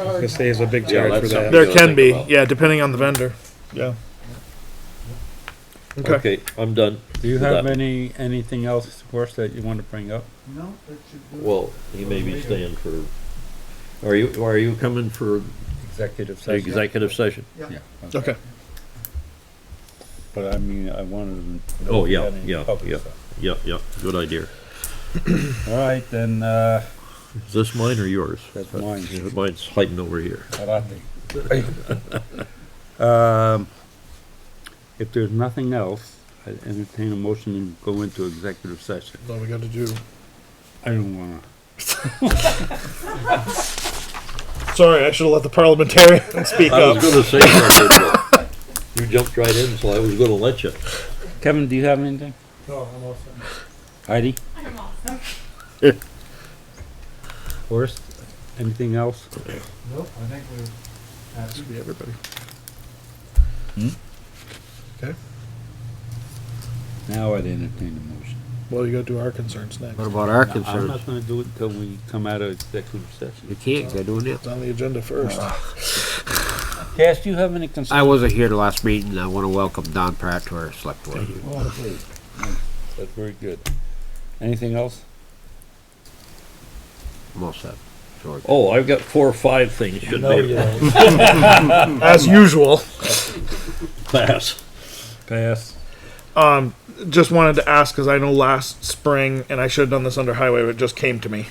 Because there's a big Yeah, charge for that's that. something. There can think be, about. yeah, depending on the vendor, yeah. Okay, Okay, I'm done. Do you with have that. any, anything else, Boris, that you want to bring up? No, that should do it. Well, he may be staying for, are you, are you coming for Executive the session? executive session? Yeah, okay, But I mean, I wanted to. know Oh, if you yeah, had any yeah, public yeah. stuff. Yep, yep, good idea. All right, then, uh, Is this mine or yours? That's mine. Yeah, Mine's hiding over here. Karate. Um, If there's nothing else, I entertain a motion to go into executive session. so we gotta do, I don't wanna. sorry, I should've let the parliamentarian speak I was up. gonna say something. but You jumped right in, so I was gonna let you. Kevin, do you have anything? No, I'm all set. Heidi? I'm awesome. Forrest? Anything else? Nope, I think we're happy. Should be everybody. Now I'd entertain a motion. Well, you gotta do our concerns next, What about our I'm concerns? not gonna do it till we come out of executive session. You can't, they're doing it. it's on the agenda first. Ah. Cass, do you have any concerns? I wasn't here the last meeting, and I wanna welcome Don Pratt to our select board. That's very good. Anything else? I'm all set. George. Oh, I've got four or five things should be As usual. pass. Pass. Um, just wanted to ask because I know last spring, and I should have done this under highway, but it just came to me.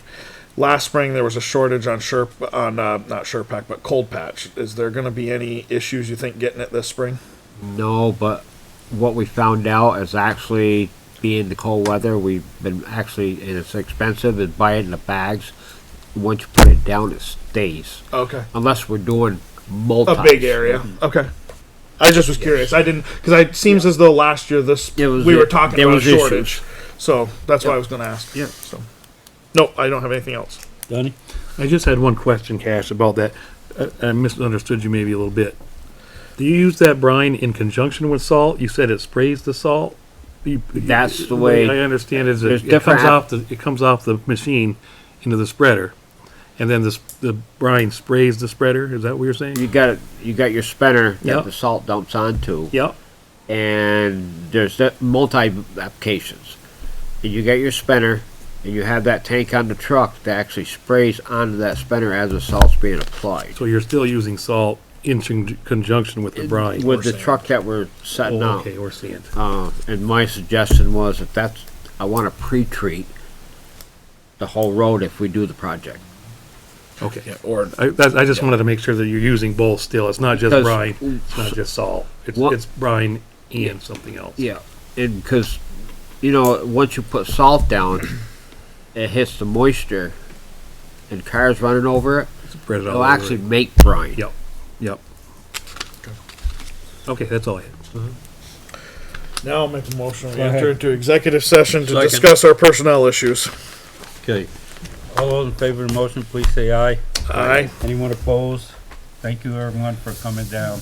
Last spring there was a shortage on sure on uh, not sure pack but cold patch. Is there going to be any issues you think getting it this spring? No, but what we found out is actually being the cold weather, we've been actually, and it's expensive, is buy it in the bags. Once you put it down, it stays, Okay, unless we're doing multi. a big area. Okay, I just was curious. I didn't because it seems as though last year this It was- we were talking there about a was issues. shortage, so that's why I was going to ask. Yeah. So, no, I don't have anything else. Donnie? I just had one question, Cash, about that. Uh, I- I misunderstood you maybe a little bit. Do you use that brine in conjunction with salt? You said it sprays the salt? You- That's the way- I understand is There's it it different comes app- off, the it comes off the machine into the spreader, and then this, the brine sprays the spreader? Is that what you're saying? You got, you got your spinner that Yep. the salt dumps onto. Yep, and there's the multi applications. And you get your spinner, and you have that tank on the truck that actually sprays onto that spinner as the salt's being applied. so you're still using salt in conj- conjunction with the brine? With the truck that we're setting Oh, up. Okay, or sand. Uh, and my suggestion was if that's, I wanna pre-treat the whole road if we do the project. Okay. Or. I, that, I just wanted to make sure that you're using both still. It's not just Because- brine, it's not just salt. It's, What- it's brine and something else. Yeah, and because, you know, once you put salt down, it hits the moisture, and cars running over it, Spread it all it'll over. actually make brine. Yep, yep. Okay, that's all I had. Now I'll make a motion. We Go ahead. enter into executive session to Second. discuss our personnel issues. Okay, All those in favor of the motion, please say aye. Aye. Anyone opposed? Thank you, everyone, for coming down.